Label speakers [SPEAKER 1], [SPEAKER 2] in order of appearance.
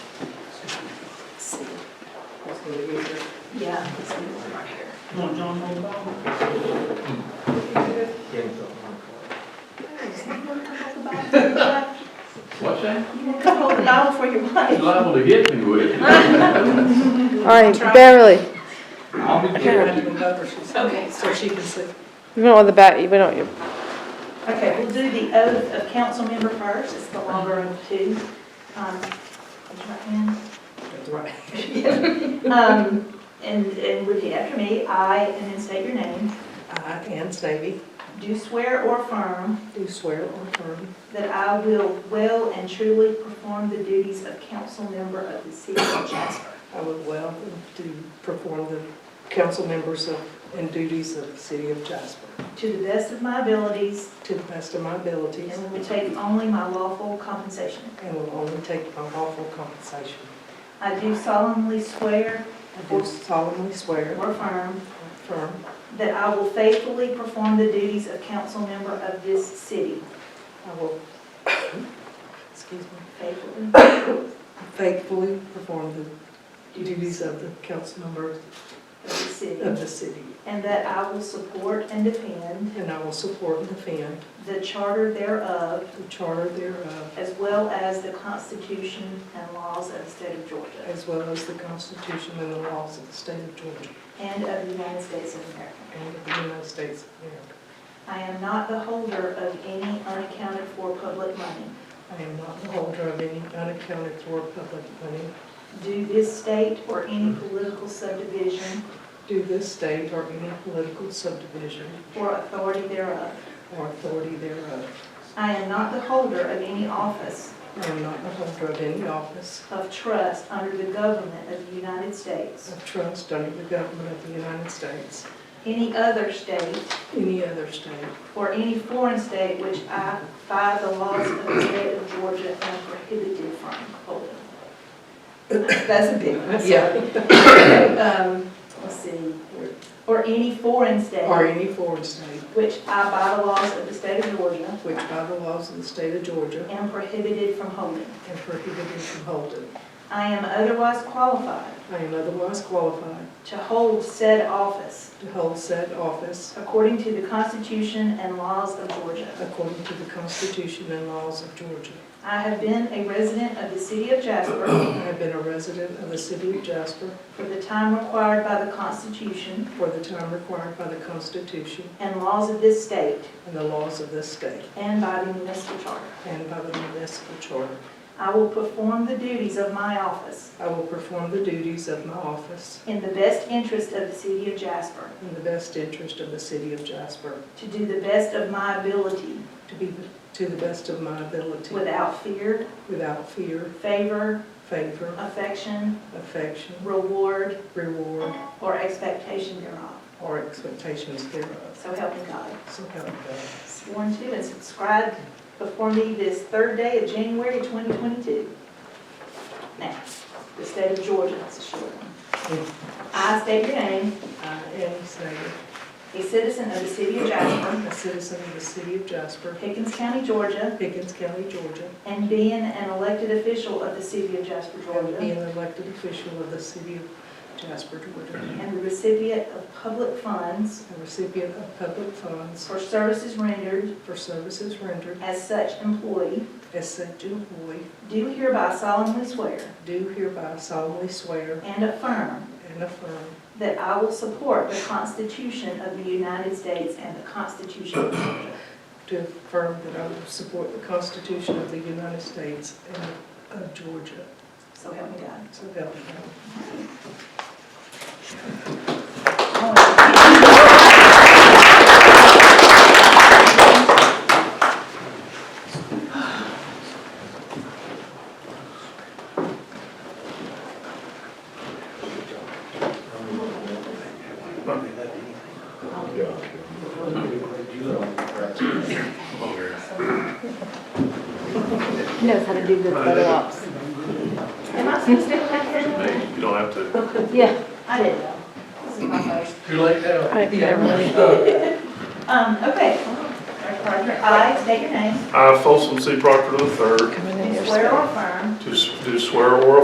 [SPEAKER 1] for the future.
[SPEAKER 2] Yeah. it's gonna work out here.
[SPEAKER 1] Want John Hall back?
[SPEAKER 3] What's that?
[SPEAKER 2] Come hold the bottle for your wife.
[SPEAKER 3] You're liable to hit me with it.
[SPEAKER 4] All right, barely.
[SPEAKER 3] I'll be
[SPEAKER 1] Have to
[SPEAKER 3] careful.
[SPEAKER 1] go over, she said.
[SPEAKER 2] Okay,
[SPEAKER 1] So she can sit.
[SPEAKER 4] We don't want the bat, we don't, you-
[SPEAKER 2] Okay, we'll do the oath of council member first, it's the longer of two. Um, raise your hand.
[SPEAKER 1] That's right.
[SPEAKER 2] Um, And, and repeat after me, I, and then state your name,
[SPEAKER 1] I, Ann Snavy,
[SPEAKER 2] do swear or affirm
[SPEAKER 1] do swear or affirm
[SPEAKER 2] that I will well and truly perform the duties of council member of the city of Jasper.
[SPEAKER 1] I would well to perform the council members of- and duties of the city of Jasper
[SPEAKER 2] To the best of my abilities,
[SPEAKER 1] to the best of my abilities
[SPEAKER 2] and will take only my lawful compensation.
[SPEAKER 1] and will only take my lawful compensation.
[SPEAKER 2] I do solemnly swear
[SPEAKER 1] I do solemnly swear
[SPEAKER 2] or affirm
[SPEAKER 1] or affirm
[SPEAKER 2] that I will faithfully perform the duties of council member of this city.
[SPEAKER 1] I will, excuse me,
[SPEAKER 2] Faithfully.
[SPEAKER 1] faithfully perform the duties of the council member
[SPEAKER 2] of the city.
[SPEAKER 1] of the city.
[SPEAKER 2] And that I will support and defend
[SPEAKER 1] And I will support and defend
[SPEAKER 2] the charter thereof,
[SPEAKER 1] the charter thereof,
[SPEAKER 2] as well as the Constitution and laws of the state of Georgia
[SPEAKER 1] as well as the Constitution and the laws of the state of Georgia
[SPEAKER 2] and of the United States of America.
[SPEAKER 1] and of the United States of America.
[SPEAKER 2] I am not the holder of any unaccounted for public money,
[SPEAKER 1] I am not the holder of any unaccounted for public money
[SPEAKER 2] do this state or any political subdivision
[SPEAKER 1] due this state or any political subdivision
[SPEAKER 2] or authority thereof.
[SPEAKER 1] or authority thereof.
[SPEAKER 2] I am not the holder of any office
[SPEAKER 1] I am not the holder of any office
[SPEAKER 2] of trust under the government of the United States,
[SPEAKER 1] of trust under the government of the United States,
[SPEAKER 2] any other state,
[SPEAKER 1] any other state,
[SPEAKER 2] or any foreign state which I, by the laws of the state of Georgia, am prohibited from holding. That's a big one. Yeah. Um, let's see, or any foreign
[SPEAKER 1] or
[SPEAKER 2] state
[SPEAKER 1] any foreign state,
[SPEAKER 2] which I, by the laws of the state of Georgia,
[SPEAKER 1] which by the laws of the state of Georgia
[SPEAKER 2] am prohibited from holding.
[SPEAKER 1] and prohibited from holding.
[SPEAKER 2] I am otherwise qualified
[SPEAKER 1] I am otherwise qualified
[SPEAKER 2] to hold said office
[SPEAKER 1] to hold said office
[SPEAKER 2] according to the Constitution and laws of Georgia.
[SPEAKER 1] according to the Constitution and laws of Georgia.
[SPEAKER 2] I have been a resident of the city of Jasper
[SPEAKER 1] I have been a resident of the city of Jasper
[SPEAKER 2] for the time required by the Constitution
[SPEAKER 1] for the time required by the Constitution
[SPEAKER 2] and laws of this state
[SPEAKER 1] and the laws of this state
[SPEAKER 2] and by the municipal charter.
[SPEAKER 1] and by the municipal charter.
[SPEAKER 2] I will perform the duties of my office
[SPEAKER 1] I will perform the duties of my office
[SPEAKER 2] in the best interest of the city of Jasper,
[SPEAKER 1] in the best interest of the city of Jasper,
[SPEAKER 2] to do the best of my ability,
[SPEAKER 1] to be to the best of my ability,
[SPEAKER 2] without fear,
[SPEAKER 1] without fear,
[SPEAKER 2] favor,
[SPEAKER 1] favor,
[SPEAKER 2] affection,
[SPEAKER 1] affection,
[SPEAKER 2] reward,
[SPEAKER 1] reward,
[SPEAKER 2] or expectation thereof.
[SPEAKER 1] or expectations thereof.
[SPEAKER 2] So help me God.
[SPEAKER 1] So help me God.
[SPEAKER 2] Sworn to and subscribed before me this third day of January 2022. Now, the state of Georgia, that's a short one. I state your name,
[SPEAKER 1] I am Snyder,
[SPEAKER 2] a citizen of the city of Jasper,
[SPEAKER 1] a citizen of the city of Jasper,
[SPEAKER 2] Pickens County, Georgia,
[SPEAKER 1] Pickens County, Georgia,
[SPEAKER 2] and being an elected official of the city of Jasper,
[SPEAKER 1] and being
[SPEAKER 2] Georgia,
[SPEAKER 1] an elected official of the city of Jasper, Georgia,
[SPEAKER 2] and the recipient of public funds
[SPEAKER 1] a recipient of public funds
[SPEAKER 2] for services rendered
[SPEAKER 1] for services rendered
[SPEAKER 2] as such employee,
[SPEAKER 1] as such employee,
[SPEAKER 2] do hereby solemnly swear
[SPEAKER 1] do hereby solemnly swear
[SPEAKER 2] and affirm
[SPEAKER 1] and affirm
[SPEAKER 2] that I will support the Constitution of the United States and the Constitution of Georgia,
[SPEAKER 1] to affirm that I will support the Constitution of the United States and of Georgia.
[SPEAKER 2] so help me God.
[SPEAKER 1] So help me God.
[SPEAKER 4] he knows how to do good photo ops.
[SPEAKER 2] Am I supposed to have that here?
[SPEAKER 5] You don't have to.
[SPEAKER 4] Yeah,
[SPEAKER 2] I didn't know. This is my first.
[SPEAKER 5] Too late now.
[SPEAKER 4] all right, barely.
[SPEAKER 2] Um, okay. Roger, I state your name,
[SPEAKER 5] I, Folsom C. Proctor III,
[SPEAKER 4] Coming in
[SPEAKER 2] do
[SPEAKER 4] here.
[SPEAKER 2] swear or affirm
[SPEAKER 5] do s- do swear or